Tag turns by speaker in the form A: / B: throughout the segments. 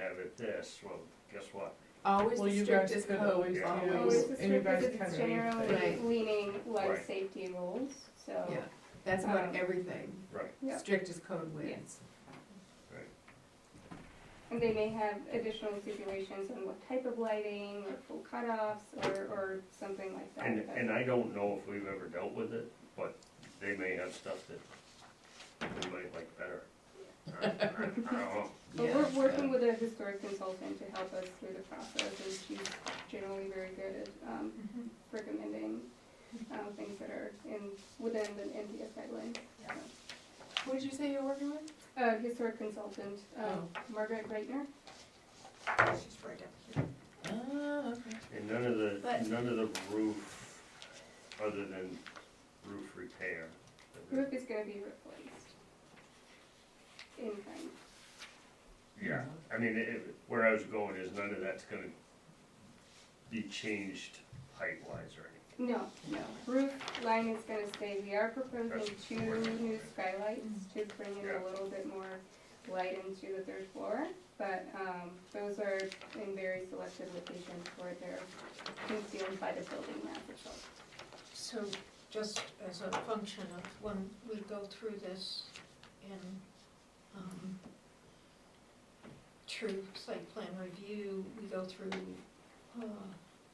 A: at this, well, guess what?
B: Always
C: Well,
B: the
C: you guys
B: strictest
C: could
B: code.
C: always
A: Yeah.
C: do, and you guys
D: It's
C: can read
D: generally
B: Right.
D: leaning
A: Right.
D: life safety rules, so.
B: Yeah, that's about
D: Um,
B: everything.
A: Right.
D: Yeah.
B: Strictest code wins.
D: And they may have additional stipulations on what type of lighting, or full cutoffs, or, or something like that.
A: And,
D: but-
A: and uh, I don't know if we've ever dealt with it, but they may have stuff that we might like better. I- I- I don't know.
D: But
B: Yeah.
D: we're
A: uh,
D: working with a historic consultant to help us through the process, and she's generally very good at, um,
B: Mm-hmm.
D: recommending, um, things that are in, within the NDS guidelines.
B: What did you say you're working with?
D: Uh, historic consultant,
B: Oh.
D: um, Margaret Reitner,
E: She's right up here.
C: Oh, okay.
A: And none of
E: But-
A: the, none of the roof, other than roof repair.
D: roof is gonna be replaced. In kind.
A: Yeah, I mean, it- it- where I was going is none of that's gonna be changed height-wise or anything.
D: No, no, roof line is gonna stay, we are proposing
A: That's
D: two
A: more than
D: new
A: that.
D: skylights to bring in
A: Yeah.
D: a little bit more light into the third floor, but, um, those are in very selected locations where they're concealed by the building map itself.
E: So just as a function of when we go through this in, um, true site plan review, we go through, uh,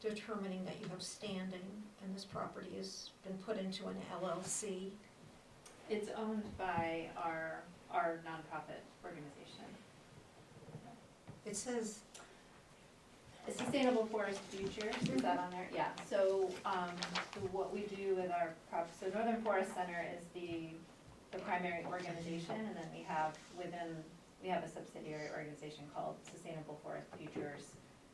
E: determining that you have standing and this property has been put into an LLC.
F: It's owned by our, our nonprofit organization.
E: It says,
F: Sustainable Forest Futures, is that on there? Yeah, so, um, so what we do with our prop, so Northern Forest Center is the, the primary organization, and then we have within, we have a subsidiary organization called Sustainable Forest Futures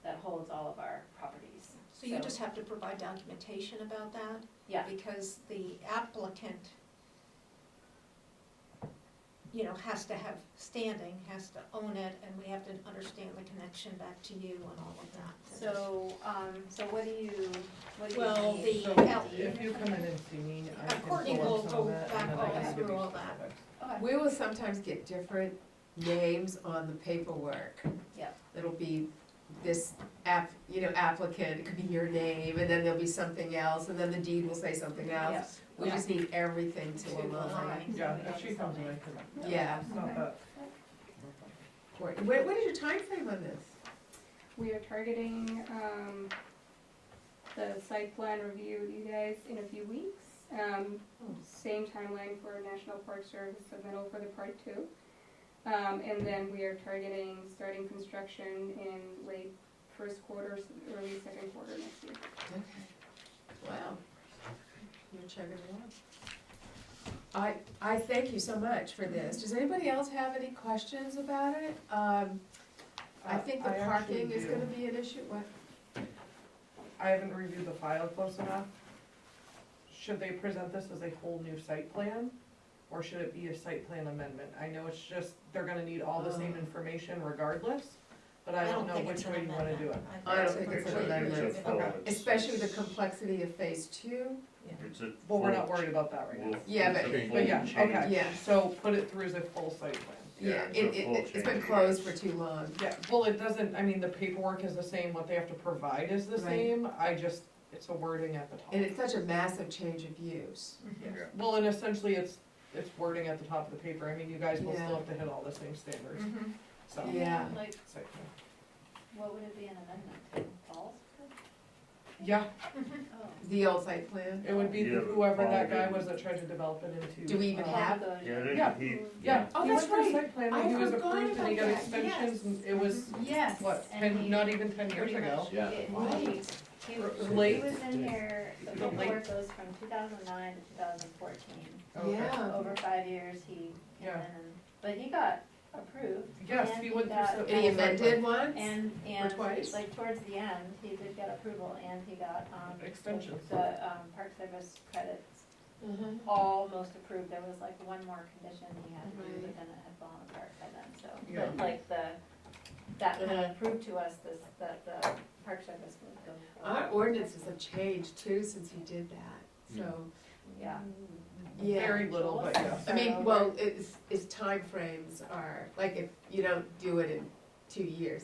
F: that holds all of our properties.
E: so you just have to provide documentation about that?
F: Yeah.
E: Because the applicant, you know, has to have standing, has to own it, and we have to understand the connection back to you and all of that.
F: So, um, so what do you, what do you
E: Well,
F: need?
E: the,
C: So
E: L-
C: if you come in and see me, I can pull
E: Courtney will
C: up some
E: go
C: of that and
E: back
C: then I
F: all
C: can give
E: through
C: you
E: all
C: some
E: that.
C: specifics.
F: Okay.
B: We will sometimes get different names on the paperwork.
F: Yep.
B: It'll be this app, you know, applicant, it could be your name, and then there'll be something else, and then the deed will say something else.
F: Yes.
B: We just need everything to
E: To
B: align.
F: align.
C: Yeah, if she comes in, I can,
B: Yeah.
C: it's not that.
B: What, what is your time frame on this?
D: We are targeting, um, the site plan review with you guys in a few weeks. Um, same timeline for National Park Service submittal for the part two. Um, and then we are targeting starting construction in late first quarter, s- early second quarter next year.
B: Okay. Wow. You're chugging along. I, I thank you so much for this. Does anybody else have any questions about it? Um, I
C: Uh,
B: think the
C: actually
B: parking is
C: do.
B: gonna be an issue, what?
C: I haven't reviewed the file close enough. Should they present this as a whole new site plan? Or should it be a site plan amendment? I know it's just, they're gonna need all the same
B: Oh.
C: information regardless, but I don't know
E: think
C: which
E: it's an
C: way you wanna do it.
E: amendment.
B: I don't think it's an
A: a-
B: amendment.
A: It's a full-
C: Okay.
A: it's-
B: Especially the complexity of phase two?
A: It's a.
C: Well, we're
A: full
C: not worried about that right now.
A: Well,
B: Yeah,
A: it's
B: but-
A: a
C: But yeah,
A: full change.
C: okay.
B: Yeah.
C: So put it through as a full site plan.
A: Yeah, it's a
B: It,
A: full
B: it, it's been
A: change.
B: closed for too long.
C: Yeah, well, it doesn't, I mean, the paperwork is the same, what they have to provide is the
B: Right.
C: same, I just, it's a wording at the top.
B: And it's such a massive change of use.
A: Yeah.
C: Well, and essentially, it's, it's wording at the top of the paper, I mean, you guys will
B: Yeah. Mm-hmm.
C: still have to hit all the same standards,
E: Mhm.
C: so.
B: Yeah.
F: Like,
C: site plan.
F: what would it be an amendment to, Paul's?
C: Yeah,
F: Oh.
B: The old site plan?
C: it would be
A: Yeah,
C: whoever that guy
A: probably.
C: was that tried to develop it into.
B: Do we even
C: uh,
B: have-
A: Yeah,
C: Yeah.
A: then he.
C: Yeah.
B: Oh,
C: he
B: that's
C: went through
B: right.
C: Site plan,
B: I
C: and he was
B: forgot
C: approved, and he
B: about
C: got
B: that,
C: extensions,
B: yes.
C: and it was,
F: Yes.
C: what,
F: and
C: ten,
F: he-
C: not even ten years
F: pretty
C: ago?
F: much
G: Yeah.
F: did.
B: Right.
F: He was, he
C: Late.
F: was in here, the
C: Late.
F: report goes from two thousand nine to two thousand fourteen.
C: Okay.
B: Yeah.
F: Over five years, he came in,
C: Yeah.
F: and- but he got approved.
C: Yes,
F: and
C: he went through.
F: got-
C: site
B: And he
C: plan.
B: amended once?
F: And, and,
B: twice?
F: like, towards the end, he did get approval, and he got, um. the-
C: Extensions.
F: The, um, Park Service credits
B: Mhm.
F: almost approved, there was like one more condition he had to do,
B: Right.
F: but then it had fallen apart by then, so.
C: Yeah.
F: But like the, that kind
B: Uh-huh.
F: of proved to us this, that the Park Service would go.
B: Our ordinances have changed too since he did that, so,
F: Yeah.
B: yeah.
C: Very little, but yeah.
B: I mean, well, it's, it's timeframes are, like if you don't do it in two years,